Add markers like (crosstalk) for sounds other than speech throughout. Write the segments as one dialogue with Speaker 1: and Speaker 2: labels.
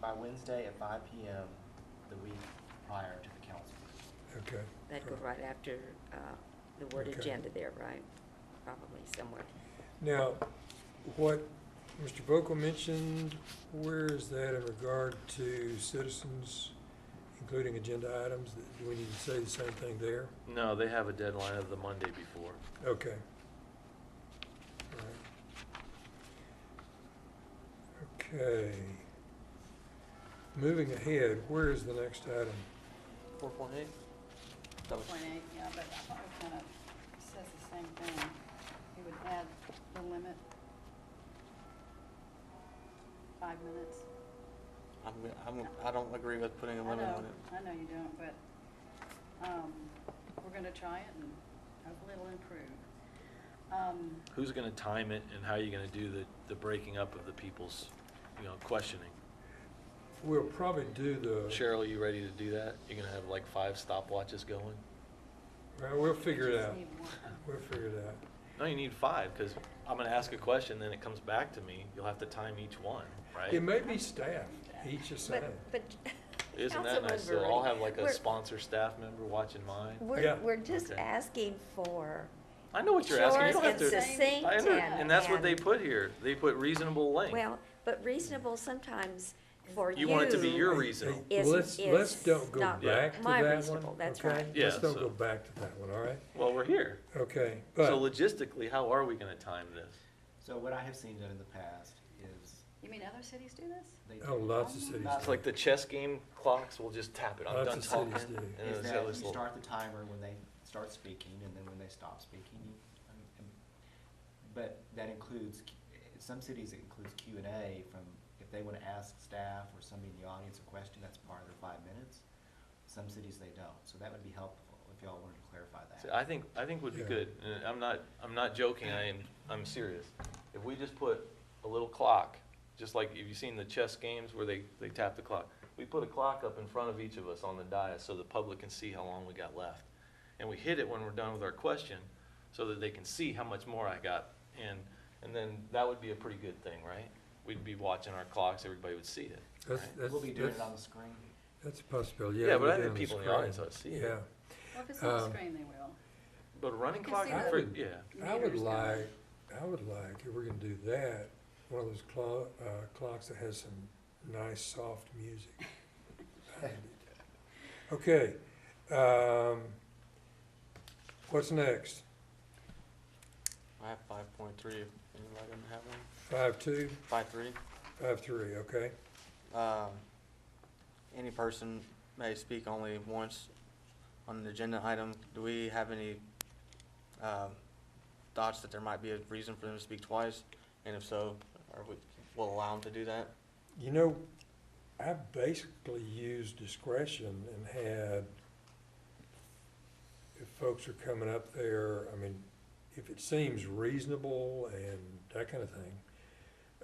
Speaker 1: by Wednesday at five PM the week prior to the council. meeting.
Speaker 2: Okay.
Speaker 3: That goes right after uh, the word
Speaker 2: Okay.
Speaker 3: agenda there, right? Probably somewhere.
Speaker 2: Now, what Mr. Vokel mentioned, where is that in regard to citizens, including agenda items? Do we need to say the same thing there?
Speaker 4: No, they have a deadline of the Monday before.
Speaker 2: Okay. Alright. Okay. Moving ahead, where is the next item?
Speaker 1: Four point eight?
Speaker 5: Point eight, yeah, but I thought it kind of says the same thing. You would add the limit, five minutes.
Speaker 6: I'm, I'm, I don't agree with putting a
Speaker 5: I
Speaker 6: limit
Speaker 5: know,
Speaker 6: on it.
Speaker 5: I know you don't, but, um, we're gonna try it and hopefully it'll improve. Um,
Speaker 4: Who's gonna time it and how are you gonna do the, the breaking up of the people's, you know, questioning?
Speaker 2: We'll probably do the.
Speaker 4: Cheryl, you ready to do that? You're gonna have like five stopwatches going?
Speaker 2: Well, we'll figure it
Speaker 5: just
Speaker 2: out.
Speaker 5: need one.
Speaker 2: We'll figure it out.
Speaker 4: No, you need five, because I'm gonna ask a question, then it comes back to me. You'll have to time each one, right?
Speaker 2: It may be staff, each assigned.
Speaker 3: But, but.
Speaker 4: (laughs) Isn't that
Speaker 3: Councilman
Speaker 4: nice? So I'll
Speaker 3: Verrilli,
Speaker 4: have like a
Speaker 3: we're-
Speaker 4: sponsor staff member watching mine.
Speaker 2: Yeah.
Speaker 3: We're, we're just
Speaker 4: Okay.
Speaker 3: asking for,
Speaker 4: I know what you're asking. You
Speaker 3: Yours
Speaker 4: don't have
Speaker 3: is
Speaker 4: to.
Speaker 3: succinct
Speaker 4: I under-
Speaker 5: and-
Speaker 4: And that's what they
Speaker 3: and-
Speaker 4: put here. They put reasonable length.
Speaker 3: well, but reasonable sometimes for you.
Speaker 4: You want it to be your reason.
Speaker 2: Hey,
Speaker 3: is-
Speaker 2: Let's, let's
Speaker 3: is
Speaker 2: don't go
Speaker 3: not
Speaker 2: back to that
Speaker 3: my
Speaker 2: one.
Speaker 3: reasonable, that's
Speaker 2: okay?
Speaker 3: right.
Speaker 4: Yeah,
Speaker 2: Let's don't go
Speaker 4: so-
Speaker 2: back to that one, all right?
Speaker 4: Well, we're here.
Speaker 2: Okay,
Speaker 4: So
Speaker 2: but,
Speaker 4: logistically, how are we gonna time this?
Speaker 1: So what I have seen done in the past is
Speaker 5: You mean other cities do this?
Speaker 1: they.
Speaker 2: oh, lots of cities.
Speaker 1: Not
Speaker 4: It's like the chess game clocks, we'll just tap it, I'm
Speaker 2: Lots
Speaker 4: done
Speaker 2: of
Speaker 4: talking.
Speaker 2: cities do.
Speaker 4: and
Speaker 1: Is
Speaker 4: it's
Speaker 1: that
Speaker 4: got this
Speaker 1: you
Speaker 4: uh, little-
Speaker 1: start the timer when they start speaking, and then when they stop speaking, you, um, um, but that includes, Q- some cities it includes Q and A from, if they wanna ask staff or somebody in the audience a question, that's part of their five minutes. Some cities they don't, so that would be helpful if y'all wanted to clarify
Speaker 4: See,
Speaker 1: that.
Speaker 4: I think, I think would be
Speaker 2: Yeah.
Speaker 4: good, and I'm not, I'm not joking, I am, I'm serious. If we just put a little clock, just like, have you seen the chess games where they, they tap the clock? We put a clock up in front of each of us on the dais so the public can see how long we got left. And we hit it when we're done with our question, so that they can see how much more I got. And, and then that would be a pretty good thing, right? We'd be watching our clocks, everybody would see it.
Speaker 2: That's,
Speaker 4: right?
Speaker 2: that's,
Speaker 1: We'll be doing it on the
Speaker 2: that's-
Speaker 1: screen.
Speaker 2: that's a possibility, yeah.
Speaker 4: Yeah, but
Speaker 2: we'll
Speaker 4: I
Speaker 2: do
Speaker 4: think
Speaker 2: it on
Speaker 4: people in the
Speaker 2: screen.
Speaker 4: audience ought to see it.
Speaker 2: Yeah.
Speaker 5: Well, if it's on the
Speaker 2: Um,
Speaker 5: screen, they will.
Speaker 4: But a running
Speaker 5: You can
Speaker 4: clock,
Speaker 5: see
Speaker 2: I
Speaker 5: the-
Speaker 4: for-
Speaker 2: would-
Speaker 4: yeah,
Speaker 2: I would
Speaker 5: Meters go.
Speaker 2: like, I would like, if we're gonna do that, one of those clo- uh, clocks that has some nice, soft music. behind it. Okay, um, what's next?
Speaker 6: I have five point three, if anybody didn't have one.
Speaker 2: Five two,
Speaker 6: Five three,
Speaker 2: five three, okay?
Speaker 6: um, any person may speak only once on an agenda item. Do we have any, um, thoughts that there might be a reason for them to speak twice? And if so, are we, will allow them to do that?
Speaker 2: You know, I basically use discretion and had, if folks are coming up there, I mean, if it seems reasonable and that kind of thing,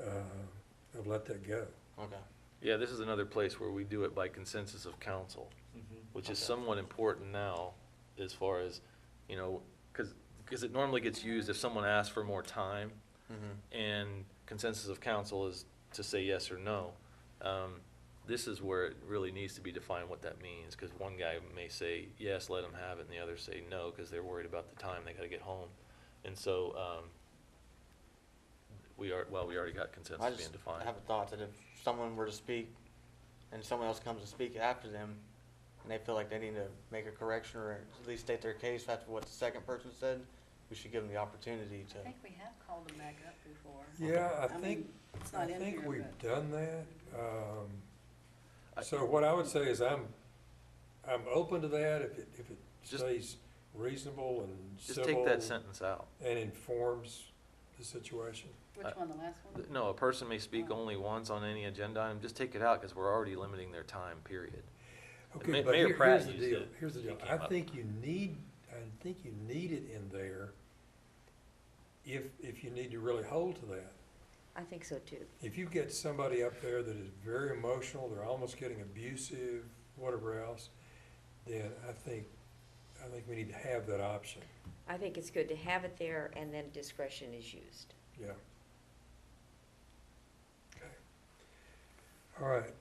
Speaker 2: uh, I've let that go.
Speaker 6: Okay.
Speaker 4: yeah, this is another place where we do it by consensus of council.
Speaker 1: Mm-hmm.
Speaker 4: which is
Speaker 6: Okay.
Speaker 4: somewhat important now as far as, you know, because, it normally gets used if someone asks for more time
Speaker 6: Mm-hmm.
Speaker 4: and consensus of council is to say yes or no. Um, This is where it really needs to be defined what that means, because one guy may say, yes, let them have it, and the others say no, because they're worried about the time, they gotta get home. And so, um, we are, well, we already got
Speaker 6: I
Speaker 4: consensus
Speaker 6: just
Speaker 4: being defined.
Speaker 6: have a thought that if someone were to speak and someone else comes to speak after them and they feel like they need to make a correction or at least state their case after what the second person said, we should give them the opportunity
Speaker 5: I think
Speaker 6: to.
Speaker 5: we have called them back up before.
Speaker 2: Yeah, I
Speaker 5: mean,
Speaker 2: think,
Speaker 5: It's
Speaker 2: I
Speaker 5: not in here,
Speaker 2: think we've
Speaker 5: but
Speaker 2: done that. Um,
Speaker 4: I-
Speaker 2: so what I would say is I'm, I'm open to that if it, if it
Speaker 4: Just-
Speaker 2: stays reasonable and
Speaker 4: Just
Speaker 2: civil.
Speaker 4: take that sentence out.
Speaker 2: And informs the situation.
Speaker 5: which one, the last one?
Speaker 4: No, a person may speak only once on any agenda item, just take it out, because we're already limiting their time, period.
Speaker 2: Okay,
Speaker 4: Ma-
Speaker 2: but
Speaker 4: Mayor
Speaker 2: here-
Speaker 4: Pratt
Speaker 2: here's the
Speaker 4: used
Speaker 2: deal,
Speaker 4: it.
Speaker 2: here's the
Speaker 4: He
Speaker 2: deal.
Speaker 4: came
Speaker 2: I
Speaker 4: up.
Speaker 2: think you need, I think you need it in there if, if you need to really hold to that.
Speaker 3: I think so too.
Speaker 2: If you get somebody up there that is very emotional, they're almost getting abusive, whatever else, then I think, I think we need to have that option,
Speaker 3: I think it's good to have it there and then discretion is used.
Speaker 2: yeah. Okay. All right,